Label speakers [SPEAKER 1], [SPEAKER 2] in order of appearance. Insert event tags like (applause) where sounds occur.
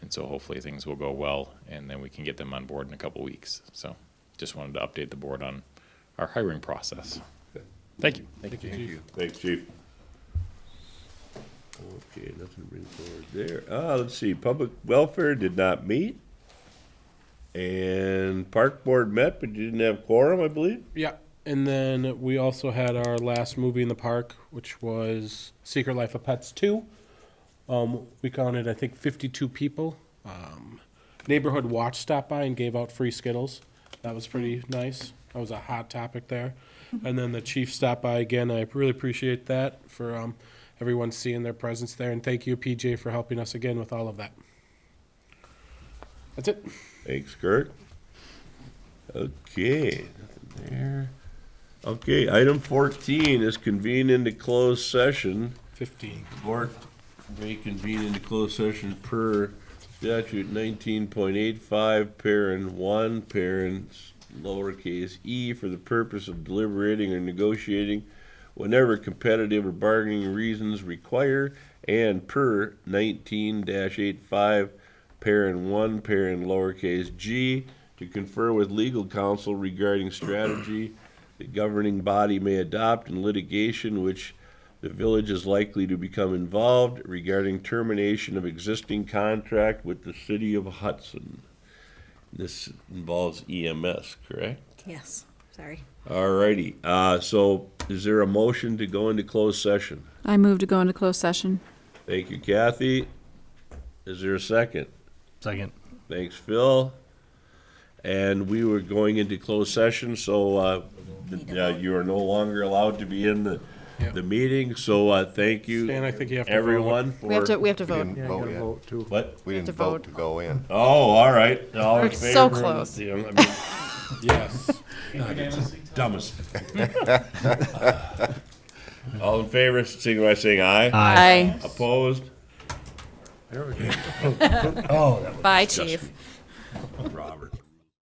[SPEAKER 1] and so hopefully things will go well, and then we can get them on board in a couple weeks. So, just wanted to update the board on our hiring process. Thank you.
[SPEAKER 2] Thank you.
[SPEAKER 3] Thanks, chief. Okay, nothing to bring forward there. Uh, let's see, public welfare did not meet. And park board met, but you didn't have quorum, I believe.
[SPEAKER 2] Yeah, and then we also had our last movie in the park, which was Secret Life of Pets Two. Um, we counted, I think, fifty-two people. Um, neighborhood Watch stopped by and gave out free Skittles. That was pretty nice. That was a hot topic there. And then the chief stopped by again. I really appreciate that for um, everyone seeing their presence there, and thank you, PJ, for helping us again with all of that. That's it.
[SPEAKER 3] Thanks, Kurt. Okay, nothing there. Okay, item fourteen is convene into closed session.
[SPEAKER 2] Fifteen.
[SPEAKER 3] Board may convene into closed session per statute nineteen point eight five, parent one, parents lowercase e, for the purpose of deliberating or negotiating whenever competitive or bargaining reasons require, and per nineteen dash eight five, parent one, parent lowercase g, to confer with legal counsel regarding strategy the governing body may adopt in litigation which the village is likely to become involved regarding termination of existing contract with the city of Hudson. This involves EMS, correct?
[SPEAKER 4] Yes, sorry.
[SPEAKER 3] Alrighty, uh, so is there a motion to go into closed session?
[SPEAKER 5] I move to go into closed session.
[SPEAKER 3] Thank you, Kathy. Is there a second?
[SPEAKER 6] Second.
[SPEAKER 3] Thanks, Phil. And we were going into closed session, so uh,
[SPEAKER 4] Need a
[SPEAKER 3] uh,
[SPEAKER 4] vote.
[SPEAKER 3] you are no longer allowed to be in the,
[SPEAKER 2] Yeah.
[SPEAKER 3] the meeting, so uh, thank you,
[SPEAKER 2] Stan, I think you have to vote.
[SPEAKER 3] everyone, for.
[SPEAKER 5] We have to, we have to vote.
[SPEAKER 7] didn't vote yet.
[SPEAKER 3] What?
[SPEAKER 7] We
[SPEAKER 5] We have
[SPEAKER 7] didn't
[SPEAKER 5] to
[SPEAKER 7] vote to
[SPEAKER 5] vote.
[SPEAKER 7] go in.
[SPEAKER 3] Oh, all right. All in
[SPEAKER 5] We're so
[SPEAKER 3] favor of
[SPEAKER 5] close.
[SPEAKER 3] the- I mean,
[SPEAKER 2] Yes.
[SPEAKER 3] Dumbest. (laughs) All in favor, signify by saying aye.
[SPEAKER 5] Aye.
[SPEAKER 3] Opposed?
[SPEAKER 5] Bye, chief.
[SPEAKER 3] Robert.